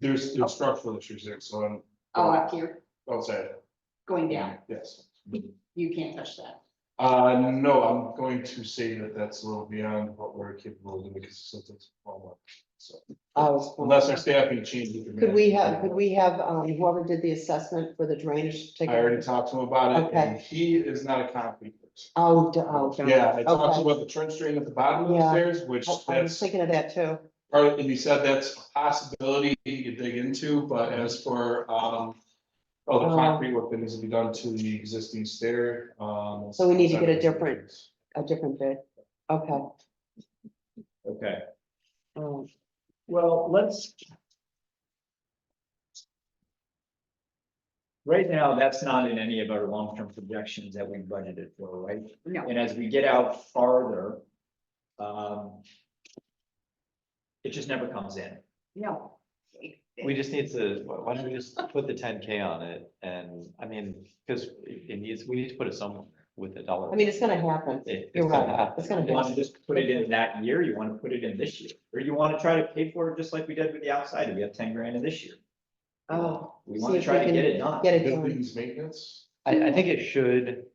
There's, Oh. there's structural issues there, so I'm. Oh, up here, Outside, going down, yes. you can't touch that. Uh, no, I'm going to say that that's a little beyond what we're capable of doing because it's something to follow up, so. I was- Unless our staffing changes. Could we have, could we have, um, whoever did the assessment for the drainage? take- I already talked to him about it, and he is not a concrete person. Oh, d- oh. darn. Yeah, I talked to Okay. him about the trench drain at the bottom of the Yeah. stairs, which I- I was that's, thinking of that too. or, and he said that's a possibility you could dig into, but as for, um. Oh, the Um. concrete work that needs to be done to the existing stair, um. So we need to get a different- A different bid. Okay. Okay, Um, well, let's. Right now, that's not in any of our long-term projections that we budgeted for, right? No. And as we get out farther, um. It just never comes in. No. We just need to, why why don't we just put the ten K on it and, I mean, because it needs, we need to put it somewhere with a dollar. I mean, it's gonna happen. It- You're it's gonna right. happen. It's gonna You want to happen. just put it in that year, you want to put it in this year, or you want to try to pay for it just like we did with the outside, we have ten grand in this year. Oh, We See want to if try we to get can it done. get it done. Buildings maintenance. I, I think it should,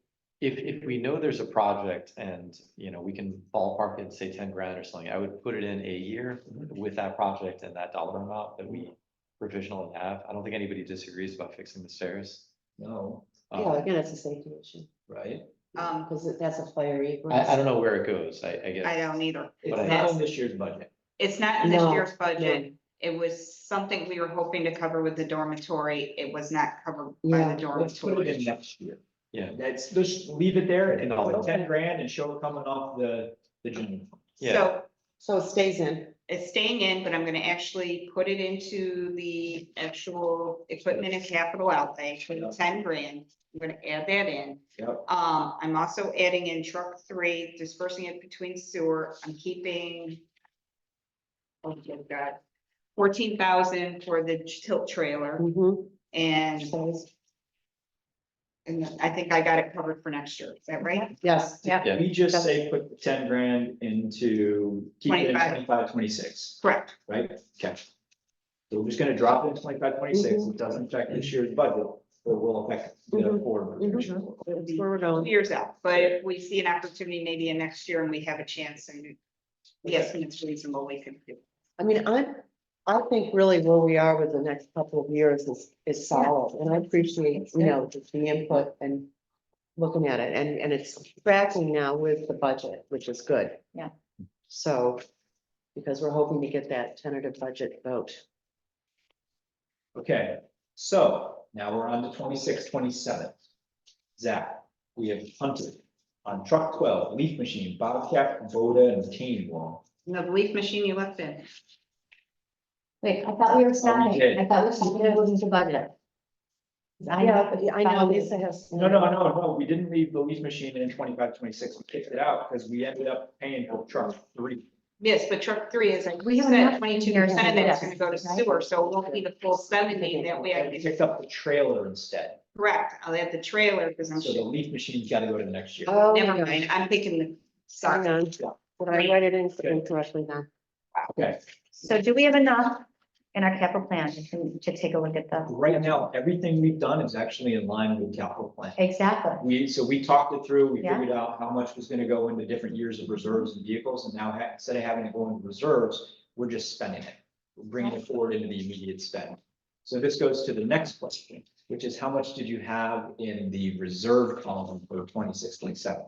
if, if we know there's a project and, you know, we can ballpark it, say ten grand or something, I would put it in a year with that project and that dollar amount that we provisionally have. I don't think anybody disagrees about fixing the stairs. No, Um, Yeah, again, it's a safety issue. right? Um, Because that's a fiery. I, I don't know where it goes, I, I guess. I don't either. It's But I- not in this year's budget. It's not in this No, year's budget. It was something we were hoping to cover with the dormitory. It was not covered by Yeah, the Let's put it in dormitory. next year. Yeah. That's, just leave it there and And all put that. ten grand and show it coming off the, the general. fund. Yeah. So So it stays in. it's staying in, but I'm gonna actually put it into the actual equipment and capital outlay for the ten grand. I'm gonna add that in. Yep. Um, I'm also adding in truck three, dispersing it between sewer, I'm keeping. Oh, good God, fourteen thousand for the tilt trailer Mhm. and, Stays. and I think I got it covered for next year, is that right? Yes. Yeah. Yeah. We just say put the ten grand into, keep it in 25. twenty-five, twenty-six, Correct, right? Okay. So we're just gonna drop it in twenty-five, twenty-six. It doesn't affect this year's budget, but it will affect the Mhm. forward. projection. That's where we're two going. years out, but if we see an opportunity maybe in next year and we have a chance and. Yes, and it's reasonable, we can do. I mean, I, I think really where we are with the next couple of years is, is solid, and I appreciate, you know, just the input and looking at it, and, and it's tracking now with the budget, which is good. Yeah. So, because we're hoping to get that tentative budget vote. Okay, so now we're on to 26, 27. Zach, we have hunted on truck twelve, leaf machine, Bobcat, Voda, and Cane Wall. The leaf machine you left in, Wait, I thought we were did. starting, I thought we were starting to move into budget. I know, but I know, Lisa has. No, no, no, no, we didn't leave the leaf machine in 25, 26. we kicked it out because we ended up paying for truck three. yes, but truck three is like, We we have said enough twenty-two percent of that's engineers to gonna do go to this, right? sewer, so we'll need the full seventy, that way I And we can picked up the trailer instead, Correct, I'll add the trailer, because I'm, so the sure- leaf machine's gotta go to the next year. Oh, never yeah. mind, I'm thinking the, Hang sorry. on, did I write it in incorrectly then? Okay, so do we have enough in our capital plan to, to take a look at the, right now, everything we've done is actually in line with capital plan. exactly, We, so we talked it through, we Yeah. figured out how much was gonna go into different years of reserves and vehicles, and now ha- instead of having to go into reserves, we're just spending it. We're bringing it forward into the immediate spend. So this goes to the next question, which is how much did you have in the reserve column for 26, 27?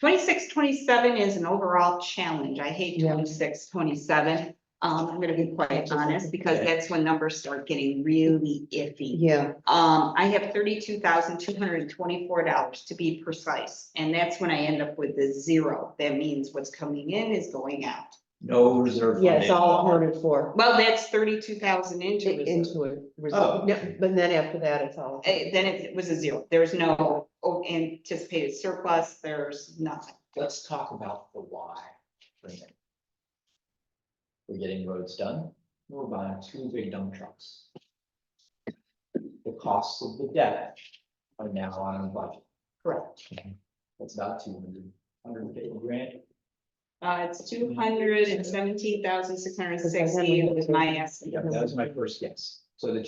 Twenty-six, twenty-seven is an overall challenge, I hate Yeah. twenty-six, twenty-seven. Um, I'm gonna be quite honest, because Okay. that's when numbers start getting really iffy. Yeah, Um, I have thirty-two thousand two hundred and twenty-four dollars to be precise, and that's when I end up with the zero. That means what's coming in is going out. No reserve. yeah, fund it's all anymore. accounted for, Well, that's thirty-two thousand into i- reserve. into it. Oh. No, But then after that, it's all. Eh, then it was a zero. There's no oh, anticipated surplus, there's nothing. Let's talk about the why. for a minute. We're getting roads done, we're buying two big dump trucks. The costs of the debt are now on the budget. Correct. That's about two hundred, hundred and fifty grand. Uh, it's two hundred and seventeen thousand, six hundred and sixty, was my estimate. Yeah, that was my first guess. So the